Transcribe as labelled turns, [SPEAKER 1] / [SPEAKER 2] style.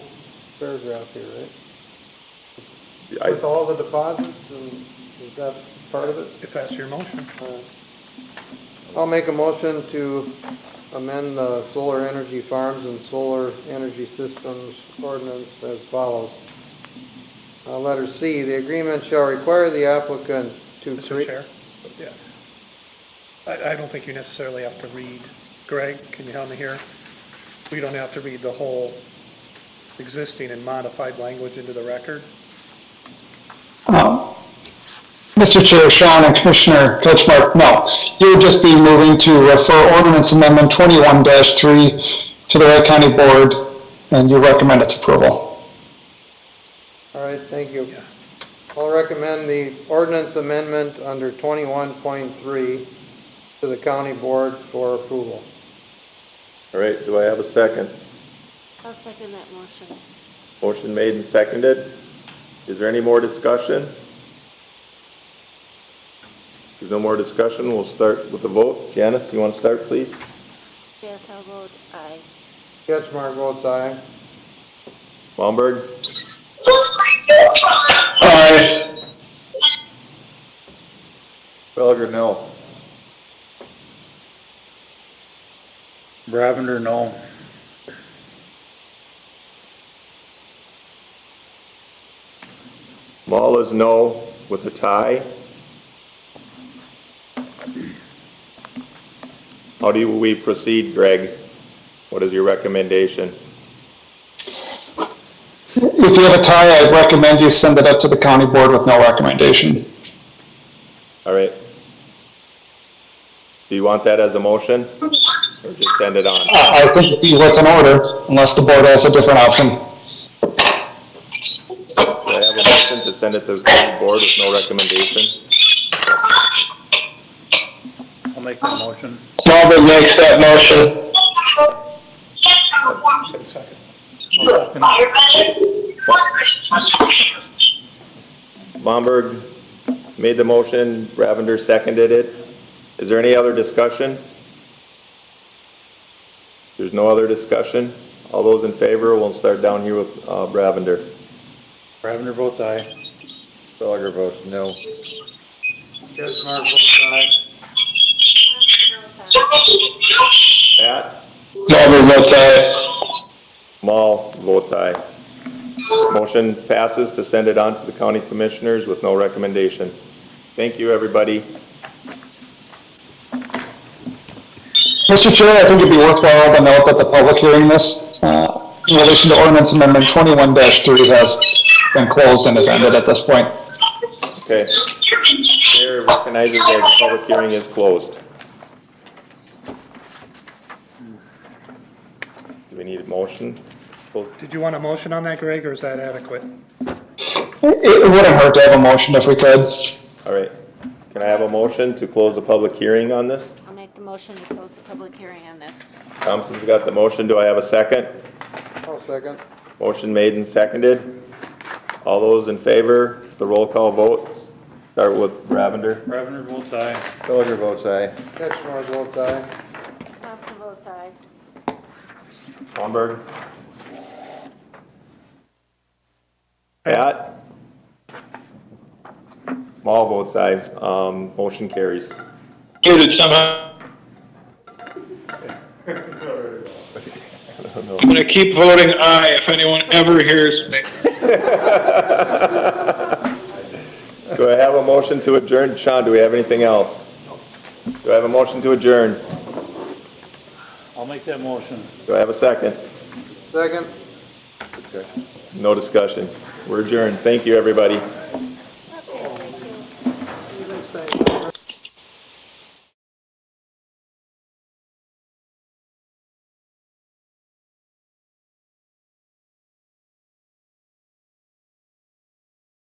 [SPEAKER 1] paragraph here, right?
[SPEAKER 2] I,
[SPEAKER 1] With all the deposits and is that part of it?
[SPEAKER 3] If that's your motion.
[SPEAKER 1] Alright. I'll make a motion to amend the solar energy farms and solar energy systems ordinance as follows. Uh, letter C, the agreement shall require the applicant to.
[SPEAKER 3] Mr.
[SPEAKER 1] create-
[SPEAKER 3] Chair? Yeah. I, I don't think you necessarily have to read. Greg, can you help me here? We don't have to read the whole existing and modified language into the record.
[SPEAKER 4] Um, Mr. Chair, Sean and Commissioner Ketchmark, no. You would just be moving to refer ordinance amendment 21-3 to the Wright County Board, and you recommend its approval.
[SPEAKER 1] All right, thank you.
[SPEAKER 3] Yeah.
[SPEAKER 1] I'll recommend the ordinance amendment under twenty-one point three to the county board for approval.
[SPEAKER 2] all right, do I have a second?
[SPEAKER 5] I'll second that motion.
[SPEAKER 2] Motion made and seconded. Is there any more discussion? If there's no more discussion, we'll start with the vote. Janice, you want to start, please?
[SPEAKER 5] Yes, I'll vote aye.
[SPEAKER 1] Ketchmark votes aye.
[SPEAKER 2] Baumberg?
[SPEAKER 4] Aye.
[SPEAKER 2] Felger, no.
[SPEAKER 6] Bravender, no.
[SPEAKER 2] Maul is no with a tie. How do we proceed, Greg? What is your recommendation?
[SPEAKER 4] If you have a tie, I'd recommend you send it up to the county board with no recommendation.
[SPEAKER 2] All right. Do you want that as a motion? Or just send it on?
[SPEAKER 4] Uh, I I think it'd be what's in order, unless the board has a different option.
[SPEAKER 2] Do I have a motion to send it to the county board with no recommendation?
[SPEAKER 6] I'll make the motion.
[SPEAKER 4] Marvin makes that motion.
[SPEAKER 3] Second.
[SPEAKER 2] Bomberg made the motion, Ravender seconded it. Is there any other discussion? There's no other discussion? All those in favor, we'll start down here with uh, Ravender.
[SPEAKER 6] Bravender votes aye.
[SPEAKER 2] Felger votes no.
[SPEAKER 1] Ketchmark votes aye.
[SPEAKER 2] Pat?
[SPEAKER 4] Marvin votes aye.
[SPEAKER 2] Maul votes aye. Motion passes to send it on to the county commissioners with no recommendation. Thank you, everybody.
[SPEAKER 4] Mr. Chair, I think it'd be worthwhile to note that the public hearing this, uh, in relation to ordinance amendment twenty-one three has been closed and has ended at this point.
[SPEAKER 2] Okay. Chair recognizes that the public hearing is closed. Do we need a motion? Well,
[SPEAKER 3] Did you want a motion on that, Greg, or is that adequate?
[SPEAKER 4] It it wouldn't hurt to have a motion if we could.
[SPEAKER 2] All right. Can I have a motion to close the public hearing on this?
[SPEAKER 5] I'll make the motion to close the public hearing on this.
[SPEAKER 2] Thompson's got the motion. Do I have a second?
[SPEAKER 1] I'll second.
[SPEAKER 2] Motion made and seconded. All those in favor, the roll call vote. Start with Ravender.
[SPEAKER 6] Bravender votes aye.
[SPEAKER 2] Felger votes aye.
[SPEAKER 1] Ketchmark votes aye.
[SPEAKER 5] Thompson votes aye.
[SPEAKER 2] Swanberg. Pat? All votes aye. Um, motion carries.
[SPEAKER 7] Muted somehow.
[SPEAKER 2] don't know.
[SPEAKER 7] I'm gonna keep voting aye if anyone ever hears me.
[SPEAKER 2] Do I have a motion to adjourn? Sean, do we have anything else? Do I have a motion to adjourn?
[SPEAKER 6] I'll make that motion.
[SPEAKER 2] Do I have a second?
[SPEAKER 1] Second.
[SPEAKER 2] No discussion. We're adjourned. Thank you, everybody.